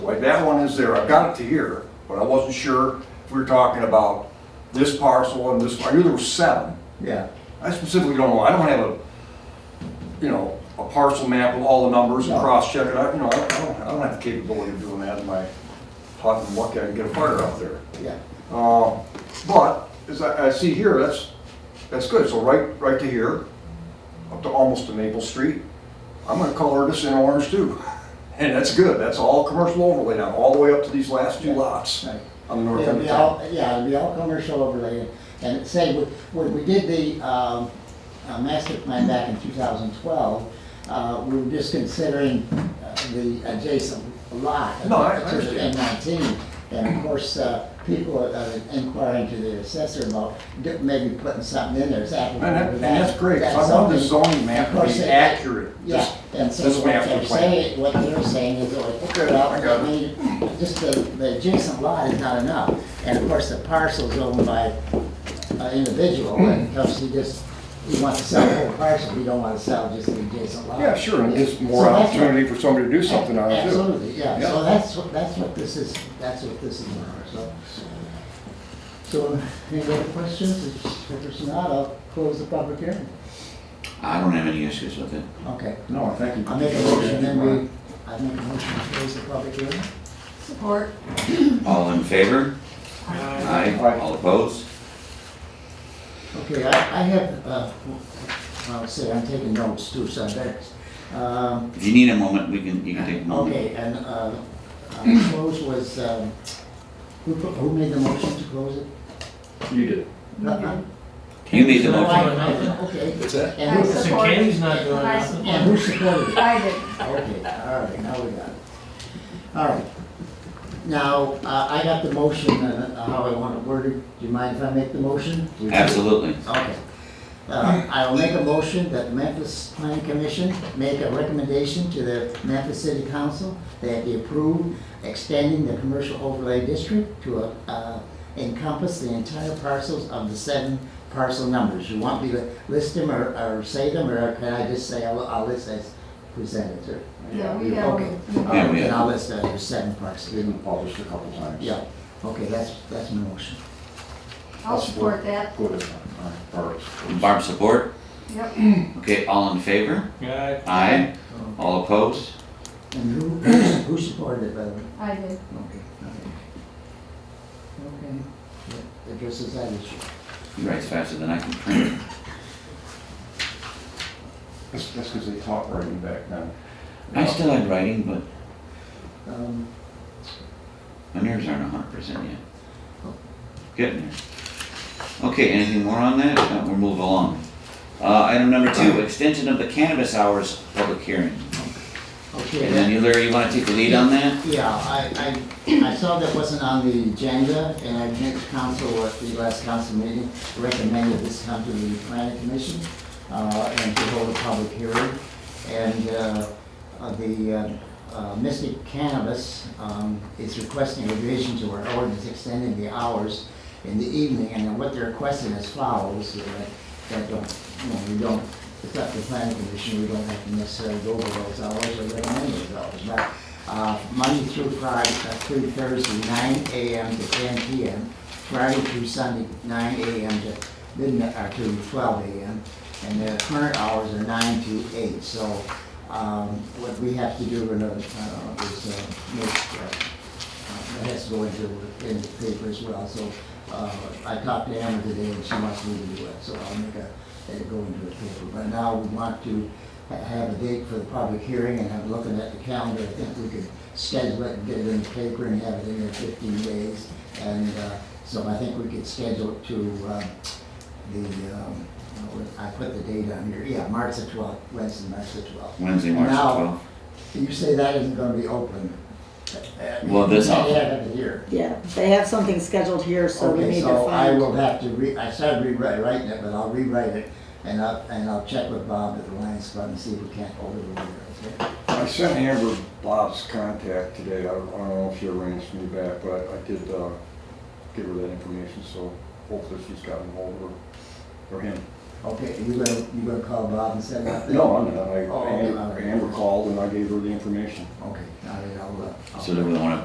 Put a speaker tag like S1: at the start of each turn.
S1: Like, that one is there, I've got it to here, but I wasn't sure if we were talking about this parcel and this, I knew there were seven.
S2: Yeah,
S1: I specifically don't know, I don't have a, you know, a parcel map with all the numbers and
S2: No.
S1: cross-check it, I, you know, I don't, I don't have the capability of doing that in my hot and lucky, I can get a fire out there.
S2: yeah.
S1: Uh, But, as I, I see here, that's, that's good, so right, right to here, up to almost to Maple Street. I'm gonna color this in orange too, and that's good, that's all commercial overlay now, all the way up to these last two lots
S2: Right.
S1: on the north
S2: It'll
S1: end of
S2: be
S1: town.
S2: all, yeah, it'll be all commercial overlay. And say, when- when we did the um, uh, master plan back in 2012, uh, we were just considering uh, the adjacent lot.
S1: No, I- I
S2: to the
S1: understand.
S2: M19. And of course, uh, people are uh, inquiring to the assessor about d- maybe putting something in there. Is that?
S1: And that- and that's great, 'cause I want the zoning map to be accurate.
S2: Yeah,
S1: This-
S2: and so
S1: this
S2: what
S1: map
S2: they're
S1: we plan.
S2: saying, what they're saying is, oh,
S1: Okay,
S2: well,
S1: I
S2: well,
S1: got
S2: I
S1: it.
S2: mean, just the, the adjacent lot is not enough. And of course, the parcel's owned by an individual,
S1: Hmm.
S2: and thus he just, he wants to sell the whole parcel, he don't wanna sell just the adjacent lot.
S1: Yeah, sure, and it gives more
S2: So that's what-
S1: opportunity for somebody to do something on it too.
S2: Absolutely, yeah,
S1: Yeah.
S2: so that's, what that's what this is, that's what this is for, so. So, any other questions? If there's not, I'll close the public hearing.
S3: I don't have any issues with it.
S2: Okay.
S1: No, I think.
S2: I make a motion, then we, I make a motion to close the public hearing.
S4: Support.
S3: All in favor?
S2: Uh,
S3: Aye.
S1: Aye.
S3: All opposed?
S2: Okay, I, I have, uh, I'll say, I'm taking notes too, so that's, um,
S3: If you need a moment, we can, you can take a moment.
S2: okay, and, uh, uh, close was, um, who, pro- who made the motion to close it?
S1: You did.
S2: No, no.
S3: You made the
S2: No,
S3: motion.
S2: Oh, I- I- Okay.
S1: What's that?
S2: And
S4: I
S2: who,
S5: So
S4: supported
S5: Kenny's not
S4: it.
S5: doing
S4: I
S5: nothing.
S2: and who
S4: supported
S2: supported
S4: it.
S2: it?
S4: I did.
S2: Okay, all right, now we got it. All right. Now, uh, I got the motion, uh, how I want it worded. Do you mind if I make the motion?
S3: Absolutely.
S2: Okay. Uh, I will make a motion that the Memphis Planning Commission make a recommendation to the Memphis City Council that they approve extending the commercial overlay district to uh, encompass the entire parcels of the seven parcel numbers. You want me to list them or, or say them, or can I just say, I'll, I'll list as presented, or?
S4: Yeah, we have.
S2: Okay.
S3: we have-
S2: And I'll list that as seven parcels.
S1: Been published a couple times.
S2: Yeah, okay, that's, that's my motion.
S4: I'll support that.
S1: Good. All right.
S3: Barb, support?
S4: Yep.
S3: Okay, all in favor?
S5: Yeah,
S3: Aye. All opposed?
S2: And who, who supported it, by the way?
S4: I did.
S2: Okay, okay. Okay. That Addresses that issue.
S3: He writes faster than I can print.
S1: That's, that's because they taught writing back then.
S3: I still had writing, but
S2: Um,
S3: my nerves aren't hundred percent yet. Getting there. Okay, anything more on that? Uh, We'll move along. Uh, item number two, extension of the cannabis hours public hearing.
S2: Okay,
S3: And then
S2: then,
S3: you, Larry, you wanna take the lead on that?
S2: yeah, I, I, I saw that wasn't on the agenda, and I think council, at the last council meeting, recommended this come to the planning commission, uh, and to hold a public hearing. And, uh, uh, the, uh, uh, Mystic Cannabis, um, is requesting a revision to our ordinance extending the hours in the evening, and what they're requesting is follows, uh, that, don't- you know, we don't, it's up to the planning commission, we don't have to necessarily go over those hours or recommend those hours, but, uh, Monday through Friday, uh, through Thursday, nine AM to ten PM, Friday through Sunday, nine AM to midnight, or to twelve AM, and the current hours are nine to eight, so, um, what we have to do, in order, uh, is, uh, make, uh, uh, That has to go into, in the paper as well, so, uh, I talked to Anna today and she wants me to do it, so I'll make a, it go into the paper. But now we want to ha- have a date for the public hearing and I'm looking at the calendar, I think we could schedule it and get it in the paper and have it in there fifteen days. And, uh, so I think we could schedule it to, uh, the, um, I put the date on here, yeah, March the twelfth, Wednesday, March the twelfth.
S3: Wednesday, March
S2: Now,
S3: twelfth.
S2: You say that isn't gonna be open.
S3: Well, this-
S2: Yeah, yeah, here.
S6: Yeah, they have something scheduled here, so we
S2: Okay,
S6: need to
S2: so I
S6: find.
S2: will have to re, I started rewriting it, but I'll rewrite it, and I'll, and I'll check with Bob at the Lions Club and see if we can't overrule it, okay?
S1: I sent Amber Bob's contact today, I don't I don't know if she arranged me back, but I did uh, give her that information, so hopefully she's gotten hold of her, or him.
S2: Okay, you gonna, you gonna call Bob and set it up? then?
S1: No, I'm not, I,
S2: Oh,
S1: Amber-
S2: okay.
S1: Amber called and I gave her the information.
S2: Okay, all right, I'll, uh. I'll-
S3: So do we wanna